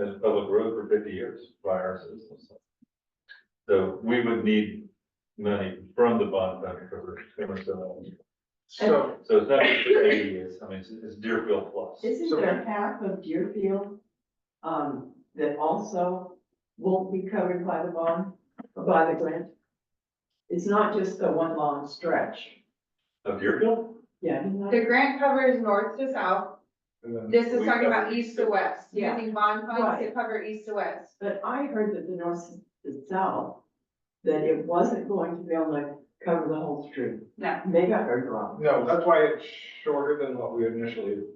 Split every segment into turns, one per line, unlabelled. as a public road for fifty years by our citizens. So we would need money from the bond fund for the, so
So,
it's not just the eighty years, I mean, it's- it's Deerfield plus.
Isn't
So-
there half of Deerfield, um, that also won't be covered by the bond, by the grant? It's not just the one long stretch,
Of Deerfield?
yeah, isn't that-
the grant covers north to south, this is talking about east to west,
Yeah.
using bond funds to
Right.
cover east to west.
but I heard that the north, the south, that it wasn't going to be able to cover the whole street.
No.
Maybe I heard wrong.
No, that's why it's shorter than what we initially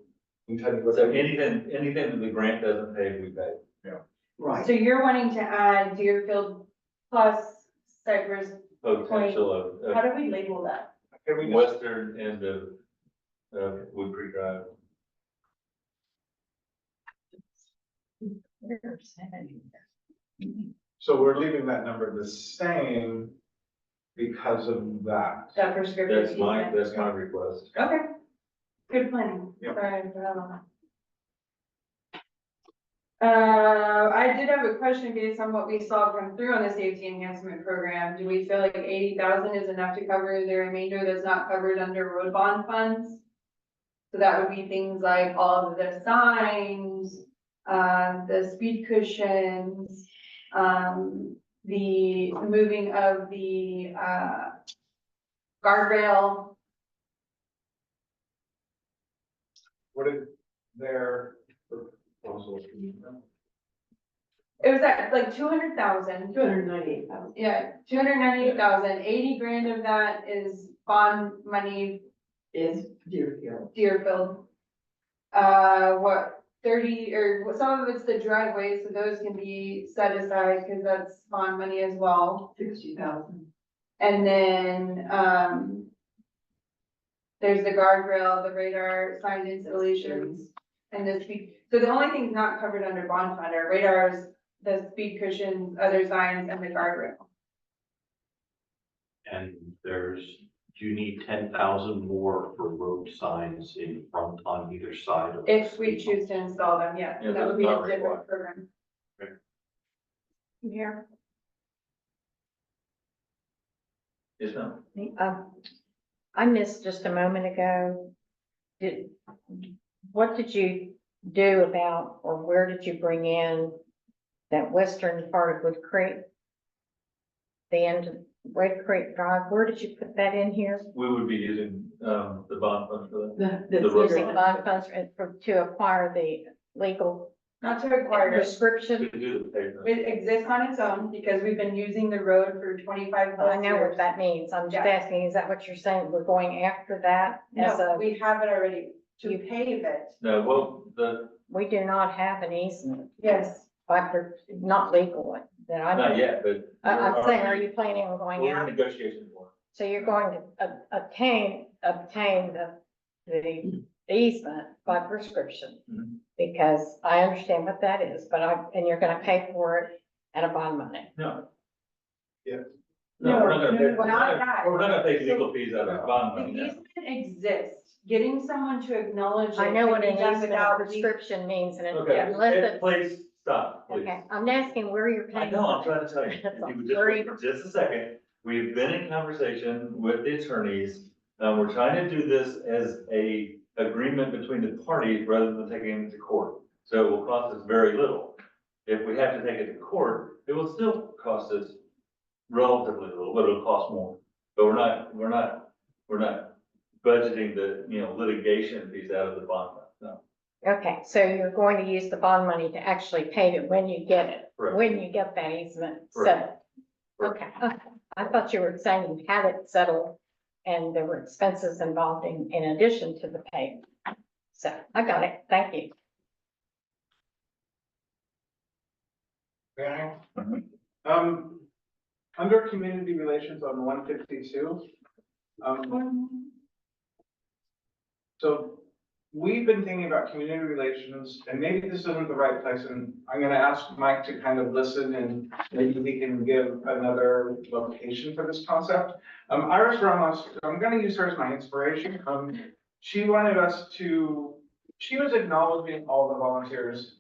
intended with
So
it.
anything, anything that the grant doesn't pay, we pay.
So
Right,
you're wanting to add Deerfield plus Cypress,
Potential of,
how
of
do we label that?
Can we just,
western end of, of Wood Creek Drive.
so we're leaving that number the same because of that.
That prescriptive.
That's my,
easement?
that's my request.
Okay. Good planning.
Yep.
Sorry, I forgot about that. Uh, I did have a question based on what we saw come through on the safety enhancement program. Do we feel like eighty thousand is enough to cover the remainder that's not covered under road bond funds? So that would be things like all of the signs, um, the speed cushions, um, the moving of the, uh, guardrail.
What did their proposal?
It was at like two hundred thousand,
two hundred ninety-eight thousand.
yeah, two hundred ninety-eight thousand, eighty grand of that is bond money
is Deerfield.
Deerfield. Uh, what, thirty, or what- some of it's the driveways, so those can be set aside, cause that's bond money as well.
Sixty thousand.
And then, um, there's the guardrail, the radar, sign installations. And the speed, so the only things not covered under bond fund are radars, the speed cushions, other signs, and the guardrail.
And there's, you need ten thousand more for road signs in front on either side of. the
If we
street.
choose to install them, yeah,
Yeah,
that would
that's
be a
not
different
required.
program.
Okay.
Here.
Yes, ma'am?
Uh, I missed just a moment ago. Did, what did you do about, or where did you bring in that western part of Wood Creek? The end of Red Creek Drive, where did you put that in here?
We would be using, um, the bond fund for that.
The,
The road
Using bond funds for- to acquire the legal
Not to require, it.
prescription?
To do the pavement.
it exists on its own because we've been using the road for twenty-five
Oh, I
plus
know what
years.
that means. I'm just
Yeah.
asking, is that what you're saying? We're going after that as
No,
a,
we have it already, to pave it,
No, well, the,
we do not have an easement,
yes,
but we're not legal one that I know.
not yet, but.
I- I'm saying, are
we're-
you planning on going
We're
out?
in negotiation for
So you're going to ob- obtain, obtain the, the easement by prescription?
Mhm.
Because I understand what that is, but I, and you're gonna pay for it out of bond money.
it. No.
Yeah.
No, we're not gonna pay,
No,
we're
not
not gonna-
that.
we're not gonna pay legal fees out of bond
the
money. no.
easement exists, getting someone to acknowledge it.
I know what
can
an
be done
easement
without
or
legal-
prescription means and
Okay,
unless
eh,
it's,
please stop, please.
okay, I'm asking where you're
I
paying.
know, I'm
for
trying
it.
to tell you, if you would just
Sorry.
wait for just a second, we've been in conversation with the attorneys. Um, we're trying to do this as a agreement between the parties rather than taking it to court. So it will cost us very little. If we have to take it to court, it will still cost us relatively little, but it'll cost more. But we're not, we're not, we're not budgeting the, you know, litigation fees out of the bond, no.
Okay, so you're going to use the bond money to actually pay it when you get it,
Correct.
when you get that easement
Correct.
settled. Okay, okay. I thought you were saying you had it settled and there were expenses involved in, in addition to the pay. So I got it. Thank you.
Yeah. Um, under community relations on one fifty-two, um, So we've been thinking about community relations, and maybe this isn't the right place, and I'm gonna ask Mike to kind of listen and maybe we can give another location for this concept. Um, Iris Ramos, I'm gonna use her as my inspiration. Um, she wanted us to, she was acknowledging all the volunteers